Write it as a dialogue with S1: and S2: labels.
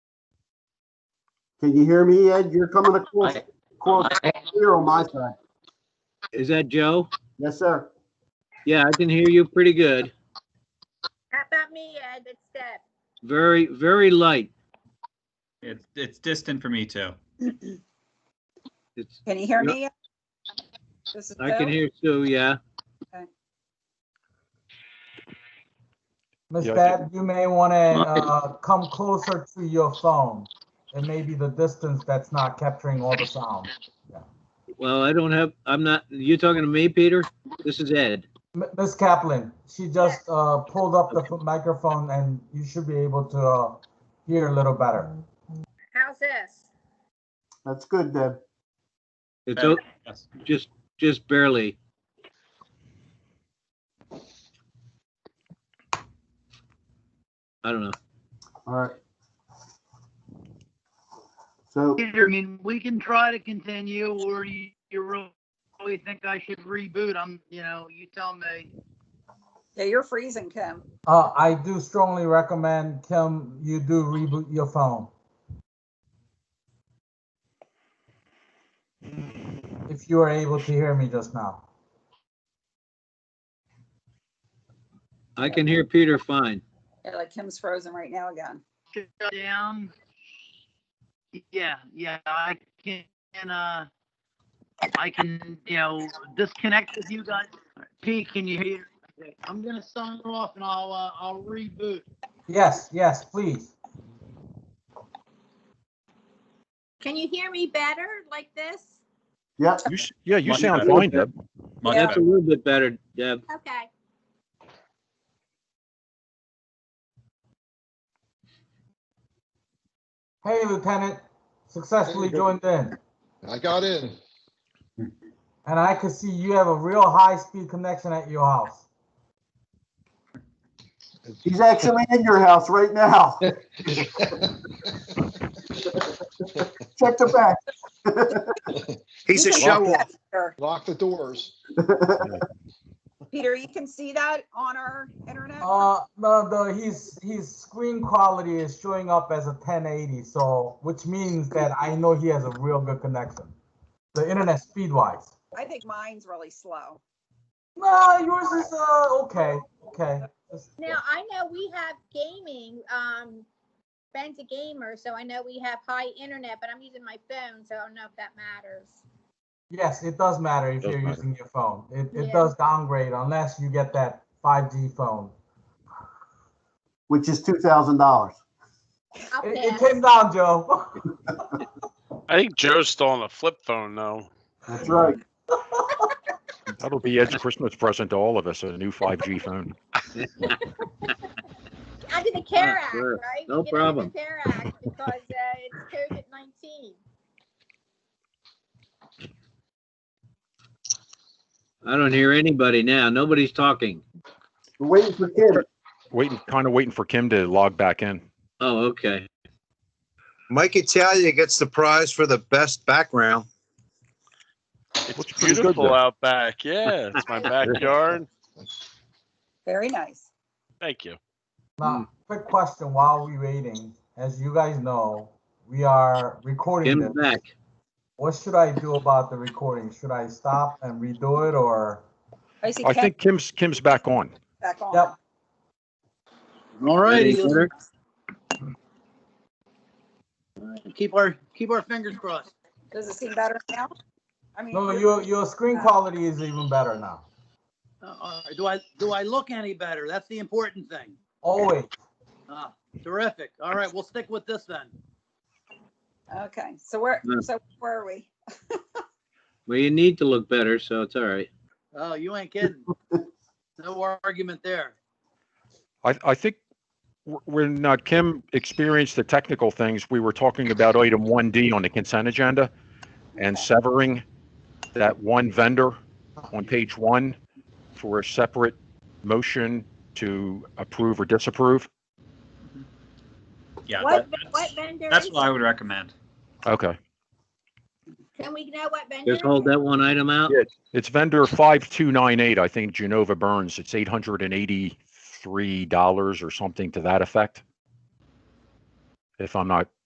S1: Can you hear me, Ed? You're coming across,
S2: I-
S1: across clear on my side.
S3: Is that Joe?
S1: Yes, sir.
S3: Yeah, I can hear you pretty good.
S4: How about me, Ed? It's Deb.
S3: Very, very light.
S5: It's, it's distant for me too.
S3: It's,
S6: Can you hear
S3: Yeah.
S6: me? This is
S3: I can
S6: Bill.
S3: hear Sue, yeah.
S7: Ms.
S8: Yeah, I
S7: Dab, you may want to come closer to your phone. It may be the distance that's not capturing all the sound.
S3: Well, I don't have, I'm not, you talking to me, Peter? This is Ed.
S7: M- Ms. Kaplan, she just uh, pulled up the f- microphone and you should be able to uh, hear a little better.
S4: How's this?
S1: That's good, Deb.
S3: It's o-
S5: Yes.
S3: just, just barely. I don't know.
S1: All right. So,
S9: Peter, I mean, we can try to continue, or you, you really think I should reboot? I'm, you know, you tell me.
S6: Yeah, you're freezing, Kim.
S7: Uh, I do strongly recommend, Kim, you do reboot your phone. If you are able to hear me just now.
S3: I can hear Peter fine.
S6: Yeah, like Kim's frozen right now again.
S9: Shut down. Yeah, yeah, I can, uh, I can, you know, disconnect with you guys. Pete, can you hear? Okay, I'm gonna sign off and I'll, uh, I'll reboot.
S7: Yes, yes, please.
S4: Can you hear me better like this?
S1: yeah,
S8: You sh- yeah, you
S5: Much
S8: sound
S5: better.
S8: fine, Deb.
S5: Much
S6: Yeah.
S3: That's a
S5: better.
S3: little bit better, Deb.
S4: Okay.
S7: Hey, Lieutenant, successfully
S10: Hey, good.
S7: joined in.
S10: I got in.
S7: And I can see you have a real high-speed connection at your house.
S1: he's actually in your house right now. Check the back.
S6: He's a show off.
S10: Lock the doors.
S6: Peter, you can see that on our internet?
S7: Uh, no, the, his, his screen quality is showing up as a 1080, so, which means that I know he has a real good connection. The internet speed-wise.
S6: I think mine's really slow.
S7: No, yours is, uh, okay, okay. Just-
S4: Now, I know we have gaming, um, Ben's a gamer, so I know we have high internet, but I'm using my phone, so I don't know if that matters.
S7: Yes, it does matter if
S8: Does
S7: you're
S8: matter.
S7: using your phone. It,
S4: Yeah.
S7: it does downgrade unless you get that 5G phone.
S1: Which is two thousand dollars.
S4: I'll
S7: It, it
S4: pass.
S7: came down, Joe.
S11: I think Joe's still on the flip phone though.
S1: That's right.
S8: That'll be Ed's Christmas present to all of us, a new 5G phone.
S4: Under the CARE Act,
S3: Oh, sure.
S4: right?
S3: No
S4: We get under the
S3: problem.
S4: CARE Act because, uh, it's COVID nineteen.
S3: I don't hear anybody now. Nobody's talking.
S1: We're waiting for Kim.
S8: Waiting, kind of waiting for Kim to log back in.
S3: Oh, okay.
S12: Mike Italia gets the prize for the best background.
S11: It's
S8: Looks pretty good
S11: beautiful
S8: there.
S11: out back. Yeah, it's my backyard.
S6: Very nice.
S11: Thank you.
S8: Hmm.
S7: Now, quick question while we're waiting. As you guys know, we are recording
S3: Kim's
S7: this.
S3: back.
S7: What should I do about the recording? Should I stop and redo it or?
S6: I see
S8: I
S6: Kim
S8: think Kim's, Kim's back on.
S6: back on.
S7: Yep.
S9: All righty,
S3: Any better?
S9: keep our, keep our fingers crossed.
S6: Does it seem better now? I mean,
S7: No,
S6: you're- Uh,
S7: your, your screen quality is even better now.
S9: Uh, do I, do I look any better? That's the important thing.
S7: Always.
S9: Ah, terrific. All right, we'll stick with this then.
S6: Okay, so where,
S3: Yeah.
S6: so where are we?
S3: Well, you need to look better, so it's all right.
S9: Oh, you ain't kidding. No argument there.
S8: I, I think wh- when uh, Kim experienced the technical things, we were talking about item 1D on the consent agenda and severing that one vendor on page one for a separate motion to approve or disapprove.
S5: Yeah,
S4: What,
S5: that-
S4: what
S5: that's-
S4: vendor
S5: that's
S4: is
S5: what I would recommend.
S8: Okay.
S4: it? Can we know what vendor?
S3: Just hold
S4: it is?
S3: that one item out.
S8: Yeah. It's vendor 5298, I think Genova Burns. It's $883 or something to that effect. If I'm not